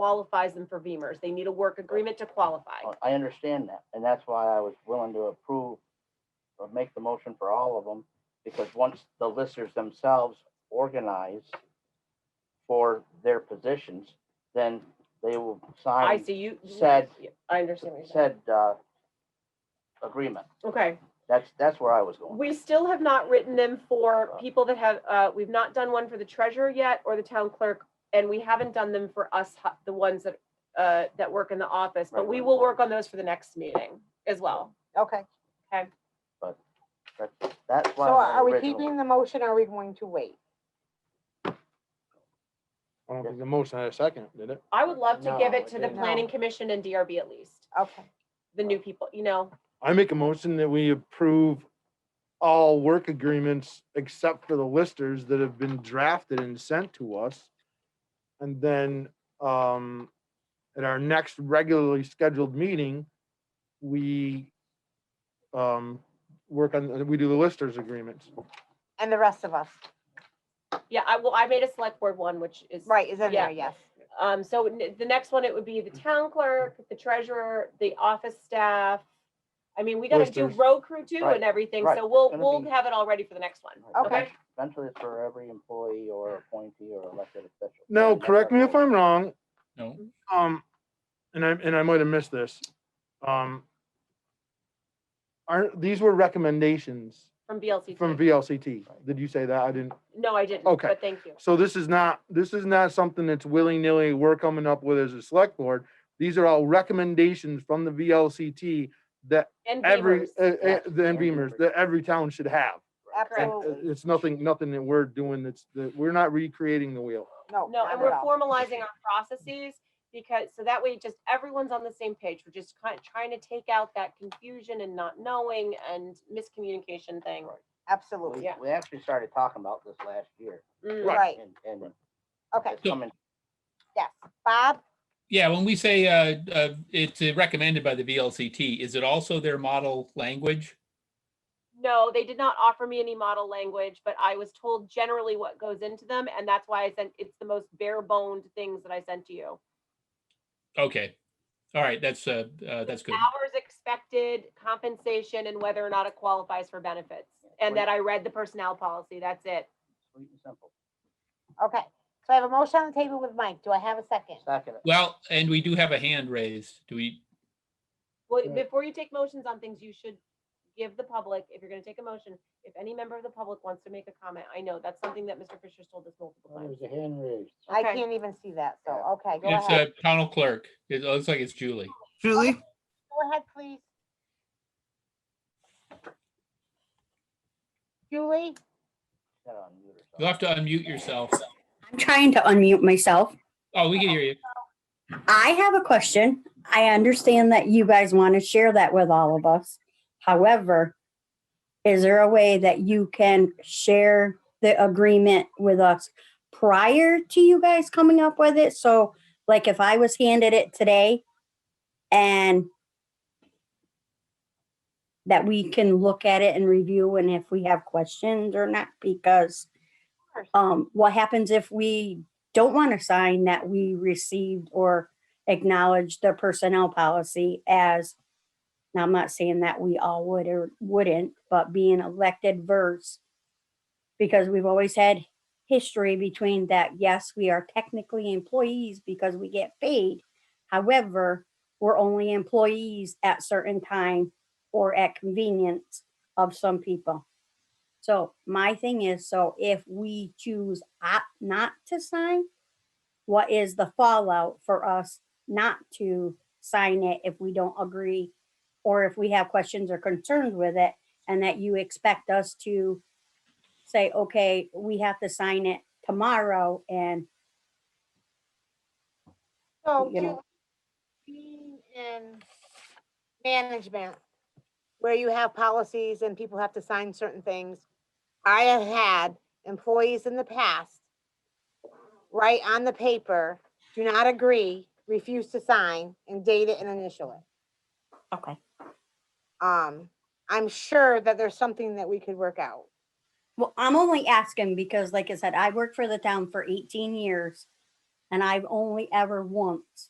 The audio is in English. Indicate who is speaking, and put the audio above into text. Speaker 1: qualifies them for VEMR's. They need a work agreement to qualify.
Speaker 2: I- I understand that, and that's why I was willing to approve or make the motion for all of them, because once the listers themselves organize for their positions, then they will
Speaker 1: I
Speaker 2: sign
Speaker 1: see you.
Speaker 2: said-
Speaker 1: I understand what you're saying.
Speaker 2: said, uh, agreement.
Speaker 1: Okay.
Speaker 2: That's, that's where I was going.
Speaker 1: We still have not written them
Speaker 2: Oh.
Speaker 1: for people that have, uh, we've not done one for the treasurer yet or the town clerk. And we haven't done them for us, hu- the ones that, uh, that work in the office, but
Speaker 2: Right,
Speaker 1: we
Speaker 2: right,
Speaker 1: will
Speaker 2: right.
Speaker 1: work on those for the next meeting as well.
Speaker 3: Okay,
Speaker 2: That's, that's
Speaker 3: so
Speaker 2: why.
Speaker 3: are
Speaker 2: my
Speaker 3: we
Speaker 2: original-
Speaker 3: keeping the motion, or are we going to wait?
Speaker 4: I don't think the motion had a second, did it?
Speaker 1: I would love to give
Speaker 2: No,
Speaker 1: it to the
Speaker 4: no.
Speaker 1: planning commission and DRB at least,
Speaker 3: Okay,
Speaker 1: the new people, you know,
Speaker 4: I make a motion that we approve all work agreements except for the listers that have been drafted and sent to us. And then, um, at our next regularly scheduled meeting, we, um, work on, we do the listers agreements.
Speaker 3: and the rest of us,
Speaker 1: yeah, I will, I made a select board one, which is.
Speaker 3: right, is in
Speaker 1: Yeah.
Speaker 3: there, yes.
Speaker 1: Um, so n- the next one, it would be the town clerk, the treasurer, the office staff. I mean, we gotta do
Speaker 4: Listers.
Speaker 1: road crew too
Speaker 2: Right,
Speaker 1: and everything,
Speaker 2: right.
Speaker 1: so we'll,
Speaker 2: It's gonna
Speaker 1: we'll
Speaker 2: be-
Speaker 1: have it all ready for the next one,
Speaker 2: Right.
Speaker 1: okay?
Speaker 2: Eventually it's for every employee or appointee or elected official.
Speaker 4: Now,
Speaker 2: And that's
Speaker 4: correct
Speaker 2: our
Speaker 4: me if
Speaker 2: goal.
Speaker 4: I'm wrong.
Speaker 5: No.
Speaker 4: Um, and I, and I might have missed this. Um, aren't, these were recommendations
Speaker 1: From VLCT.
Speaker 4: from VLCT. Did you say that? I didn't.
Speaker 1: No, I didn't,
Speaker 4: Okay.
Speaker 1: but thank you.
Speaker 4: So this is not, this is not something that's willy-nilly we're coming up with as a select board. These are all recommendations from the VLCT that
Speaker 1: And
Speaker 4: every,
Speaker 1: Beavers.
Speaker 4: uh, uh,
Speaker 2: yes,
Speaker 4: the
Speaker 2: and
Speaker 4: NBMers,
Speaker 2: Beavers.
Speaker 4: that every town should have. And uh,
Speaker 3: Absolutely,
Speaker 4: it's nothing, nothing that we're doing that's, that we're not recreating the wheel.
Speaker 3: no,
Speaker 1: No,
Speaker 3: not
Speaker 1: and
Speaker 3: at
Speaker 1: we're
Speaker 3: all.
Speaker 1: formalizing our processes because, so that way just everyone's on the same page. We're just kind of trying to take out that confusion and not knowing and miscommunication thing.
Speaker 2: We-
Speaker 3: Absolutely,
Speaker 1: Yeah.
Speaker 2: We actually started talking about this last year.
Speaker 1: Mm.
Speaker 3: right,
Speaker 2: And, and
Speaker 3: okay,
Speaker 2: it's coming
Speaker 3: yes, Bob,
Speaker 5: Yeah, when we say uh, uh, it's uh, recommended by the VLCT, is it also their model language?
Speaker 1: No, they did not offer me any model language, but I was told generally what goes into them, and that's why I sent, it's the most bare boned things that I sent to you.
Speaker 5: Okay, all right, that's, uh, uh, that's good.
Speaker 1: Hours expected, compensation, and whether or not it qualifies for benefits, and that I read the personnel policy, that's it.
Speaker 2: sweet and simple.
Speaker 3: okay, so I have a motion on the table with Mike, do I have a second?
Speaker 2: Second,
Speaker 5: Well, and we do have a hand raised. Do we,
Speaker 1: Well,
Speaker 4: Right.
Speaker 1: before you take motions on things, you should give the public, if you're gonna take a motion, if any member of the public wants to make a comment, I know, that's something that Mr. Fisher's told us multiple times.
Speaker 2: there's a hand raised.
Speaker 3: I
Speaker 1: Okay.
Speaker 3: can't even see that, so,
Speaker 2: Yeah.
Speaker 3: okay, go
Speaker 5: it's
Speaker 3: ahead,
Speaker 5: a panel clerk. It looks like it's Julie.
Speaker 6: Julie,
Speaker 3: go ahead, please. Julie,
Speaker 2: Gotta unmute herself.
Speaker 5: You'll have to unmute yourself.
Speaker 7: I'm trying to unmute myself.
Speaker 5: Oh, we can hear you.
Speaker 7: I have a question. I understand that you guys want to share that with all of us. However, is there a way that you can share the agreement with us prior to you guys coming up with it? So like if I was handed it today and that we can look at it and review and if we have questions or not, because
Speaker 3: Sure.
Speaker 7: um, what happens if we don't want to sign that we received or acknowledged the personnel policy as, now I'm not saying that we all would or wouldn't, but being elected verse. Because we've always had history between that, yes, we are technically employees because we get paid. However, we're only employees at certain time or at convenience of some people. So my thing is, so if we choose opt not to sign, what is the fallout for us not to sign it if we don't agree? Or if we have questions or concerns with it and that you expect us to say, okay, we have to sign it tomorrow and
Speaker 3: so,
Speaker 7: You know.
Speaker 3: Julie, being in management, where you have policies and people have to sign certain things, I have had employees in the past write on the paper, do not agree, refuse to sign, and date it and initial it.
Speaker 7: Okay.
Speaker 3: Um, I'm sure that there's something that we could work out.
Speaker 7: Well, I'm only asking because like I said, I worked for the town for eighteen years. And I've only ever once